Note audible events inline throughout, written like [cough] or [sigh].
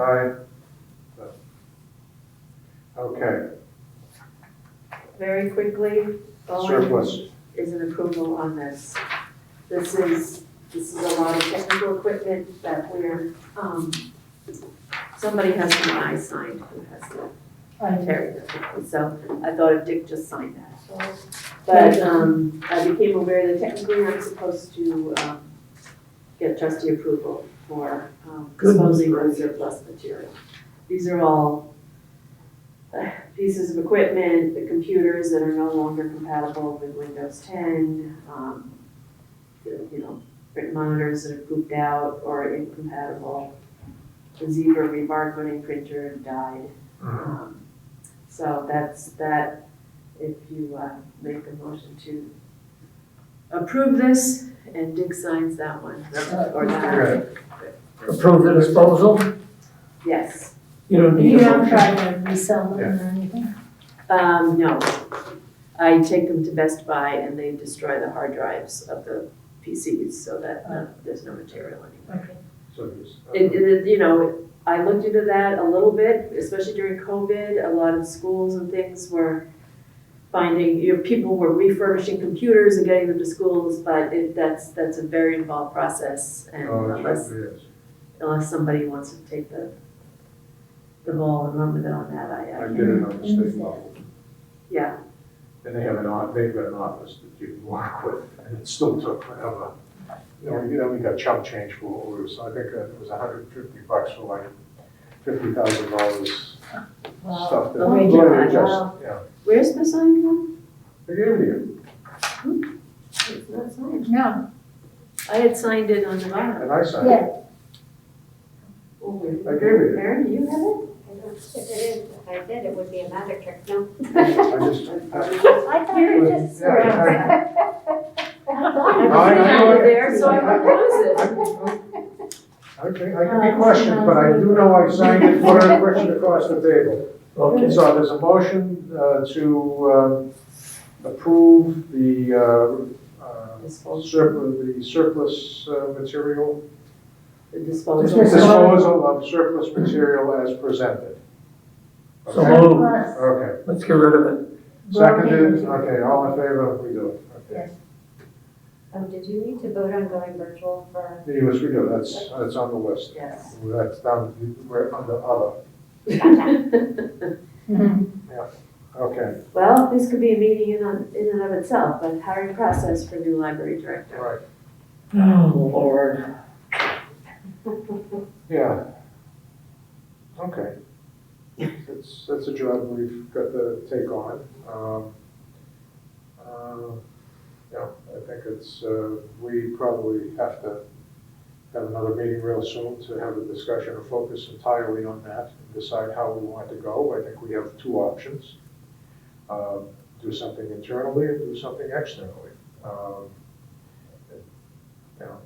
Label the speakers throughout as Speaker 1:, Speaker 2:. Speaker 1: Aye. Okay,
Speaker 2: Very quickly, Bowen
Speaker 1: surplus,
Speaker 2: is an approval on this. This is, this is a lot of technical equipment that we're, um, somebody has an I signed who has the, Terry does. So I thought if Dick just signed that. But, um, I became aware that technically I'm supposed to, um, get trustee approval for, um,
Speaker 3: Goodness
Speaker 2: disposing of
Speaker 3: gracious.
Speaker 2: surplus material. These are all uh, pieces of equipment, the computers that are no longer compatible with Windows ten, um, the, you know, print monitors that are pooped out or incompatible. The Zebra rebarcoding printer died. Um, So that's that, if you, uh, make a motion to approve this, and Dick signs that one. Or that,
Speaker 1: okay,
Speaker 3: Approve the disposal?
Speaker 2: yes,
Speaker 3: You don't need
Speaker 4: You
Speaker 3: a
Speaker 4: don't
Speaker 3: motion.
Speaker 4: try to resell them or anything?
Speaker 2: um, no. I take them to Best Buy and they destroy the hard drives of the PCs so that uh, there's no material anymore.
Speaker 4: Okay.
Speaker 1: so there's-
Speaker 2: It, it, you know, I looked into that a little bit, especially during COVID, a lot of schools and things were finding, you know, people were refurbishing computers and getting them to schools, but it, that's, that's a very involved process, and
Speaker 1: Oh, it
Speaker 2: unless,
Speaker 1: certainly is.
Speaker 2: unless somebody wants to take the, the ball and run with it on that, I,
Speaker 1: I
Speaker 2: I,
Speaker 1: did it on the state
Speaker 4: Mm-hmm.
Speaker 1: level.
Speaker 2: yeah,
Speaker 1: And they have an, o- they've got an office that you can work with, and it still took forever. You know, we- you know, we got chump change for what we was, I think it was hundred and fifty bucks for like fifty thousand dollars
Speaker 4: Wow.
Speaker 1: stuff that.
Speaker 2: Oh,
Speaker 1: Well,
Speaker 2: yeah,
Speaker 1: it just-
Speaker 4: wow.
Speaker 1: Yeah,
Speaker 2: where's the sign from?
Speaker 1: I gave you,
Speaker 2: It's not signed.
Speaker 4: No,
Speaker 2: I had signed it on the bottom.
Speaker 1: and I signed it.
Speaker 4: yeah.
Speaker 2: Oh, wait,
Speaker 1: I gave it.
Speaker 2: Mary, you have
Speaker 5: I don't- If it is, if I did, it would be a magic trick, no?
Speaker 1: I just, I-
Speaker 4: [laughs] I thought you just
Speaker 1: Yeah, I-
Speaker 2: it?
Speaker 1: No, I-
Speaker 2: I
Speaker 1: I-
Speaker 2: have it there, so I propose it.
Speaker 1: Okay, I can be questioned, but I do know I signed it for a question across the table.
Speaker 3: Okay,
Speaker 1: So there's a motion uh, to um, approve the uh, uh, surplus, the surplus uh, material,
Speaker 2: The
Speaker 3: Disposal.
Speaker 1: disposal of surplus material as presented.
Speaker 3: So
Speaker 1: Okay?
Speaker 3: moved.
Speaker 4: Plus,
Speaker 1: Okay,
Speaker 3: let's get rid of it.
Speaker 1: seconded, okay, all in favor, we do it. Okay.
Speaker 5: Um, did you need to vote on going virtual for?
Speaker 1: Yes, we do, that's, that's on the list.
Speaker 2: Yes.
Speaker 1: That's down, we're under other,
Speaker 2: [laughs]
Speaker 4: mhm.
Speaker 1: okay,
Speaker 2: Well, this could be a meeting in, on- in and of itself, but hiring process for new library
Speaker 1: all
Speaker 2: director.
Speaker 1: right.
Speaker 3: Oh, Lord.
Speaker 1: Yeah. Okay. That's, that's a job we've got to take on. Um, uh, Yeah, I think it's, uh, we probably have to have another meeting real soon to have a discussion or focus entirely on that and decide how we want to go. I think we have two options. Um, Do something internally and do something externally. Um, You know,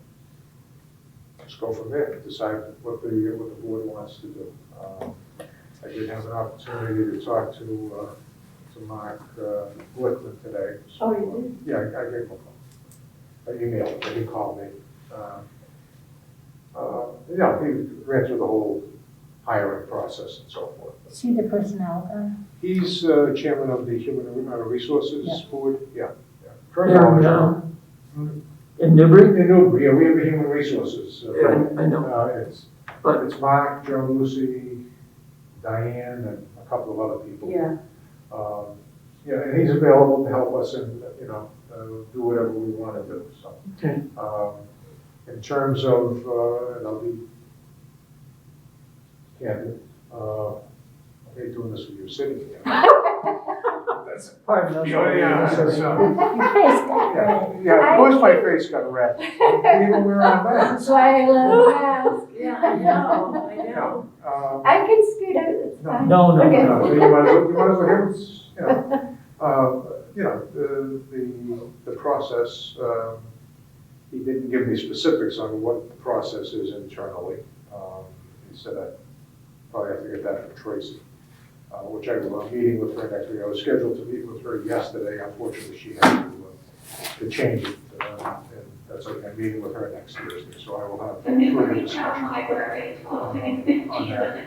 Speaker 1: just go from there, decide what the, what the board wants to do. Um, I did have an opportunity to talk to, uh, to Mark uh, Glickman today. so,
Speaker 2: Oh, you
Speaker 1: Yeah, I I gave him a call. I emailed him, but he called me. Uh, uh, Yeah, he ran through the whole hiring process and so forth.
Speaker 4: See the personnel guy?
Speaker 1: He's uh, chairman of the Human uh, Resources
Speaker 4: Yeah.
Speaker 1: Board, yeah. yeah.
Speaker 3: Here, now. In Newbury?
Speaker 1: In Newbury, yeah, we have a Human Resources. uh,
Speaker 3: I, I know,
Speaker 1: Uh, it's,
Speaker 3: But-
Speaker 1: it's Mark, Joe Lucy, Diane, and a couple of other people.
Speaker 2: did? Yeah,
Speaker 1: Um, Yeah, and he's available to help us and, you know, uh, do whatever we want to do, so.
Speaker 3: Okay.
Speaker 1: Um, In terms of, uh, and I'll be candid, uh, I hate doing this with you sitting
Speaker 3: [laughs]
Speaker 1: here. That's-
Speaker 3: pardon us.
Speaker 1: Oh, yeah, that's, uh,
Speaker 4: Nice guy.
Speaker 1: Yeah, yeah, of course my face got red, even wearing a mask.
Speaker 4: That's
Speaker 5: [laughs]
Speaker 4: why I love masks.
Speaker 2: yeah, I know, I know.
Speaker 1: Um,
Speaker 5: I can scoot out, it's
Speaker 1: No.
Speaker 5: fine.
Speaker 3: No, no,
Speaker 5: Okay.
Speaker 1: You know,
Speaker 3: no.
Speaker 1: You might as well, you might as well have, it's, you know, um, you know, the, the, the process, um, he didn't give me specifics on what the process is internally. Um, He said I probably have to get that from Tracy, uh, which I will, I'm meeting with her next week. I was scheduled to meet with her yesterday, unfortunately, she had to, uh, to change it. uh, And that's okay, I'm meeting with her next Thursday, so I will have further discussion uh, on that.